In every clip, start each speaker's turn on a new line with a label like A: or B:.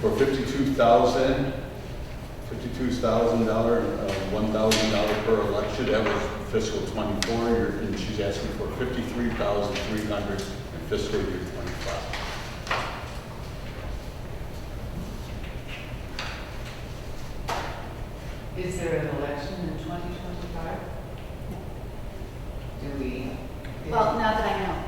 A: for fifty-two thousand, fifty-two thousand dollar, uh, one thousand dollar per election. That was fiscal twenty-four, You're- and she's asking for fifty-three thousand three hundred in fiscal year twenty-five.
B: Is there an election in 2025? Do we?
C: Well, now that I know,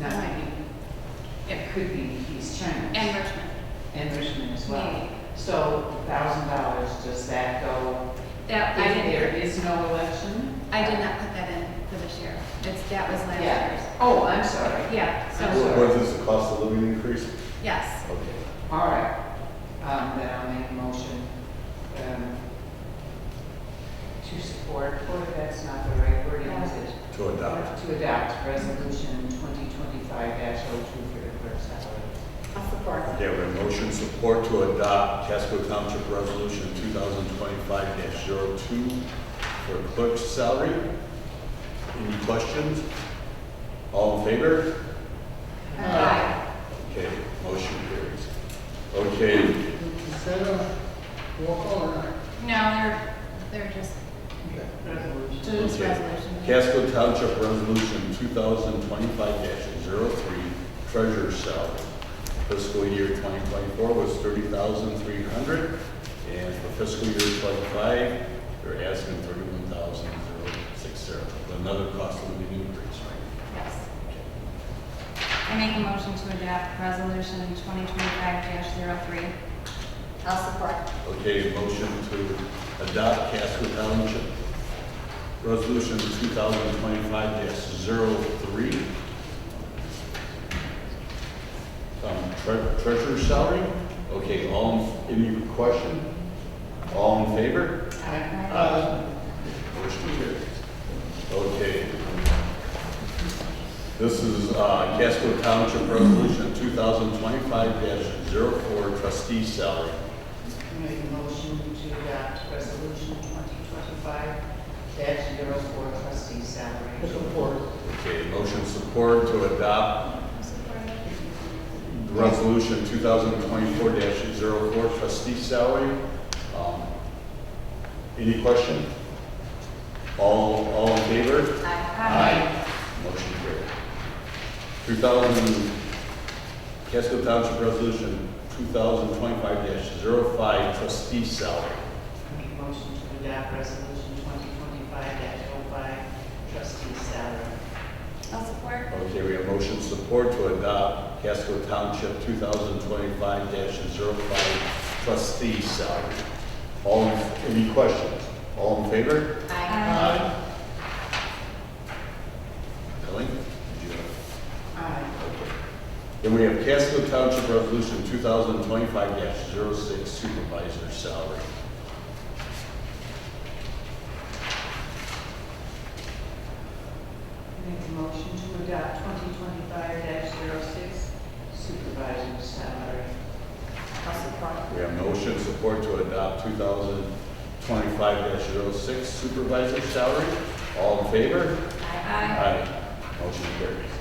B: Not be. It could be East China.
C: and Richmond,
B: And Richmond as well.
C: Maybe.
B: So thousand dollars, does that go?
C: that, I
B: If there
C: didn't,
B: is no election?
C: I did not put that in for this year. It's, that was last year's.
B: Yeah. Oh, I'm sorry.
C: Yeah, so,
B: Sure.
A: Was this the cost of living increase?
C: yes.
A: Okay.
B: All right. Um, then I'll make a motion, um, to support, or if that's not the right word, is it?
A: To adopt.
B: To adopt resolution twenty twenty-five dash oh two for the clerk's salary.
C: I'll support.
A: Okay, we have a motion support to adopt Casco Township Resolution two thousand twenty-five 2 for clerk's salary. Any questions? All in favor?
C: Aye.
A: Okay, motion carries. Okay,
D: Is that a roll call or not?
C: No, they're, they're just,
D: Okay.
B: Resolution.
C: to this resolution.
A: Casco Township Resolution two thousand twenty-five oh 3 treasurer's salary. Fiscal year twenty twenty-four was thirty thousand three hundred, and for fiscal year twenty-five, they're asking thirty-one thousand zero six zero. Another cost of living increase, right?
C: Yes. I make a motion to adopt resolution twenty twenty-five 3 I'll support.
A: Okay, motion to adopt Casco Township Resolution two thousand twenty-five 3 Um, tre- treasurer's salary? Okay, all, in- any question? All in favor? Aye. Motion carries. Okay. This is, uh, Casco Township Resolution two thousand twenty-five 4 trustee salary.
B: Make a motion to adopt resolution twenty twenty-five dash zero four trustee salary.
D: Support.
A: Okay, motion support to adopt resolution two thousand twenty-four 4 trustee salary. Um, Any question? All, all in favor?
C: Aye.
A: Motion carried. Two thousand, Casco Township Resolution two thousand twenty-five 5 trustee salary.
B: Make a motion to adopt resolution twenty twenty-five dash oh five trustee salary.
C: I'll support.
A: Okay, we have motion support to adopt Casco Township 2025-05 trustee salary. All, in- any questions? All in favor?
C: Aye.
A: Kelly? did you have-
B: Aye.
A: okay. Then we have Casco Township Resolution 2025-06 supervisor salary.
B: Make a motion to adopt twenty twenty-five dash zero six supervisor salary. I'll support.
A: We have motion support to adopt 2025-06 supervisor salary. All in favor?
C: Aye.
A: Aye. Motion carries.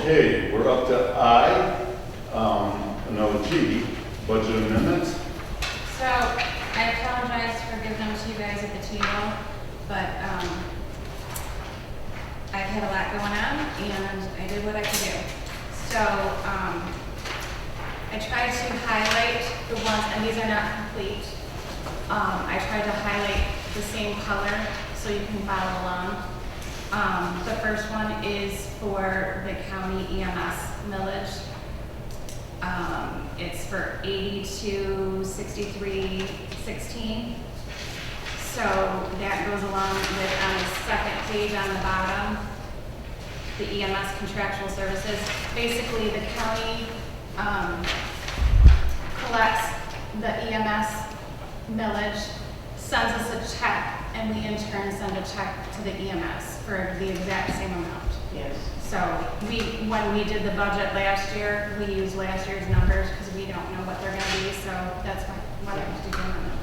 A: Okay, we're up to I, um, no, G, budget amendments.
C: So I apologize for giving them to you guys at the table, but um, I've had a lot going on and I did what I could do. So um, I tried to highlight the ones, and these are not complete. Um, I tried to highlight the same color so you can follow along. Um, The first one is for the county EMS millage. Um, it's for eighty-two, sixty-three, sixteen. So that goes along with, on the second page on the bottom, the EMS contractual services. Basically, the county, um, collects the EMS millage, sends us a check, and we in turn send a check to the EMS for the exact same amount.
B: Yes.
C: So we, when we did the budget last year, we used last year's numbers because we don't know what they're gonna be, so that's why, why I was doing them. On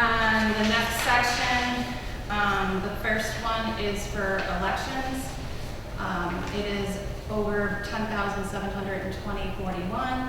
C: Um, the next section, um, the first one is for elections. Um, it is over ten thousand seven hundred and twenty forty-one.